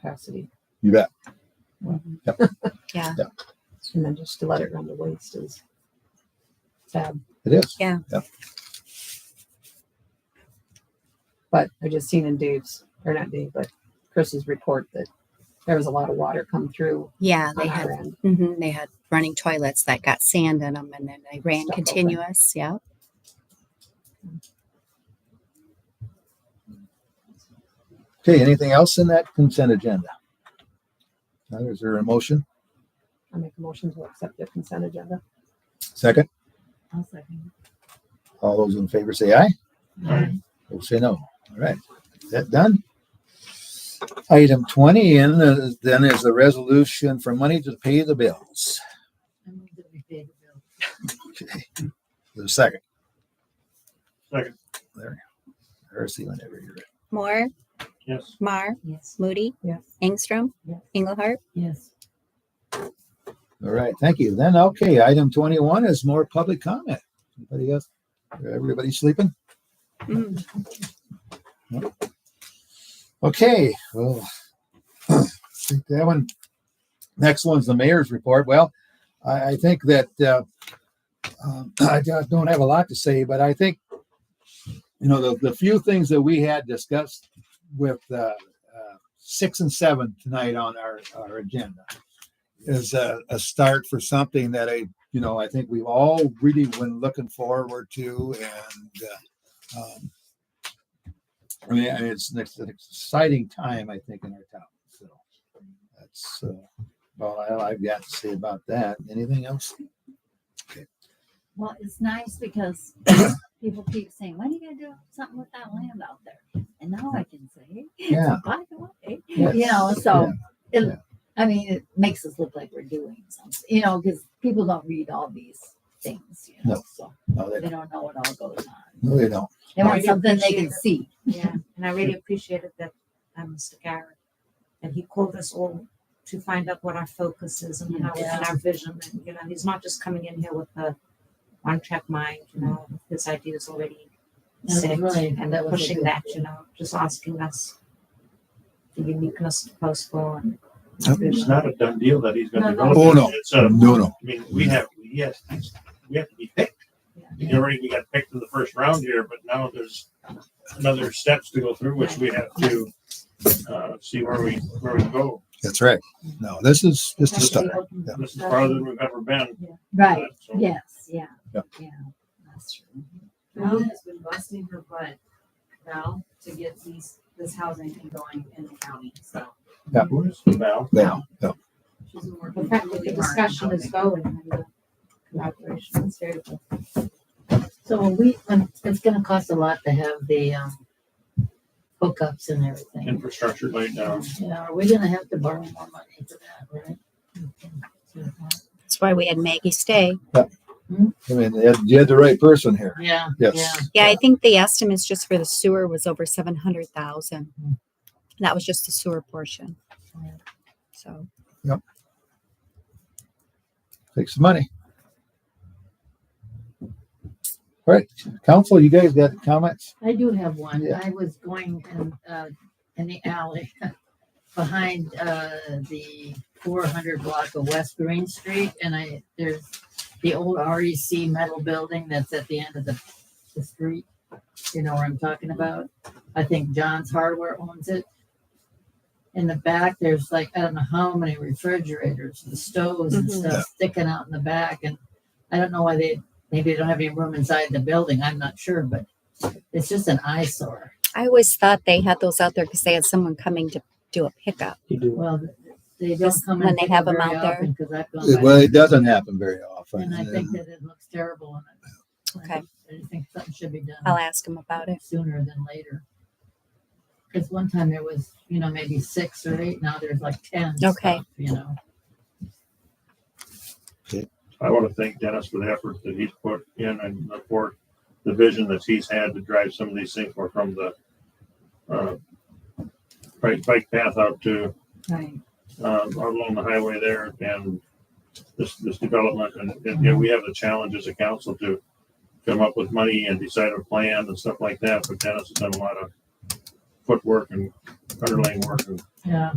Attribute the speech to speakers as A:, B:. A: capacity.
B: You bet.
A: Mhm.
B: Yep.
C: Yeah.
B: Yeah.
A: And then just to let it run to waste is sad.
B: It is.
A: But I just seen in Dave's, or not Dave, but Chris's report that there was a lot of water come through
C: Yeah,
A: on
C: they
A: our
C: had
A: end.
C: mhm, they had running toilets that got sand in them, and then they ran
A: Stuff open.
C: continuous. Yeah.
B: Okay. Anything else in that consent agenda? Now, Is there a motion?
A: I make a motion to accept the consent agenda.
B: Second.
D: I'll second.
B: All those in favor say aye.
D: Aye.
B: We'll say no. All right. Is that done? Item twenty and uh, then is the resolution for money to pay the bills.
D: I move that we pay the bill.
B: Okay. The second.
E: Second.
B: There. There's the whenever you're ready.
C: Moore,
E: Yes.
C: Mar,
D: Yes.
C: Moody,
A: Yes.
C: Engstrom,
D: Yes.
C: Englehart.
D: Yes.
B: All right, thank you. Then, okay, item twenty-one is more public comment. Anybody else? Everybody sleeping?
C: Mm.
B: Okay, well, think that one. Next one's the mayor's report. Well, I, I think that, uh, um, I don't don't have a lot to say, but I think, you know, the, the few things that we had discussed with, uh, uh, six and seven tonight on our, our agenda is a, a start for something that I, you know, I think we've all really been looking forward to and, uh, um, I mean, I mean, it's an ex- an exciting time, I think, in our town. So that's uh, about all I've got to say about that. Anything else?
D: Well, it's nice because people keep saying, when are you gonna do something with that land out there? And now I can say,
B: Yeah.
D: by the way,
B: Yes.
D: you know, so
B: Yeah.
D: it, I mean, it makes us look like we're doing something, you know, because people don't read all these things, you know,
B: No.
D: so
B: No, they
D: they
B: don't.
D: don't know what all goes on.
B: No, they don't.
D: They
F: No, I
D: want
F: do
D: something they
F: appreciate
D: can
F: it.
D: see.
F: Yeah, and I really appreciated that, um, Mr. Garrett, that he called us all to find out what our focus is and how, and our vision, and, you know, he's not just coming in here with a one-track mind, you know, his ideas already
D: That was
F: set,
D: really-
F: and
D: that was a
F: pushing
D: good-
F: that, you know, just asking us the uniqueness of Postville and.
B: Yep.
E: It's not a done deal that he's gonna develop.
B: Oh, no.
E: It's a-
B: No, no.
E: I mean, we have, yes, we have to be picked. You already, we got picked in the first round here, but now there's another steps to go through, which we have to, uh, see where we, where we go.
B: That's right. No, this is just a start.
E: This is farther than we've ever been.
D: Right,
E: So-
D: yes, yeah,
B: Yeah.
D: yeah, that's true.
G: Val has been busting her butt, Val, to get these, this housing going in the county, so
B: Yeah.
E: Who is it now?
B: Yeah. yeah.
G: she's been
F: The
G: working.
F: fact that the
G: really hard on
F: discussion is
G: housing.
F: going and the collaboration is very good.
D: So when we, when, it's gonna cost a lot to have the, um, hookups and everything.
E: Infrastructure laid down.
D: Yeah, are we gonna have to borrow more money for that, right?
C: That's why we had Maggie stay.
B: I mean, you had, you had the right person here.
D: Yeah.
B: Yes.
C: Yeah, I think the estimates just for the sewer was over seven hundred thousand. That was just the sewer portion.
D: Hmm. Yeah.
C: So
B: Take some money. All right, council, you guys got comments?
D: I do have one.
B: Yeah.
D: I was going in, uh, in the alley behind, uh, the four hundred block of West Green Street and I, there's the old REC metal building that's at the end of the, the street. You know what I'm talking about? I think John's Hardware owns it. In the back, there's like, I don't know how many refrigerators and stoves and
C: Mhm.
D: stuff sticking out in the back and I don't know why they, maybe they don't have any room inside the building. I'm not sure, but it's just an eyesore.
C: I always thought they had those out there because they had someone coming to do a pickup.
D: Well, they don't
C: Just
D: come
C: when
D: and
C: they
D: pick
C: have
D: up
C: them
D: very
C: out there.
D: often because I've gone
B: Well,
D: by
B: it doesn't happen very often.
D: and I think that it looks terrible. and I-
C: Okay.
D: I just think something should be
C: I'll
D: done
C: ask them about it.
D: sooner than later. Because one time there was, you know, maybe six or eight, now there's like ten. and
C: Okay.
D: stuff, You know,
E: I want to thank Dennis for the effort that he's put in and for the vision that he's had to drive some of these things more from the uh, bike, bike path out to,
D: right.
E: uh, out along the highway there and this, this development. And, and, you know, we have the challenge as a council to come up with money and decide a plan and stuff like that. But Dennis has done a lot of footwork and underlying work and
D: Yeah,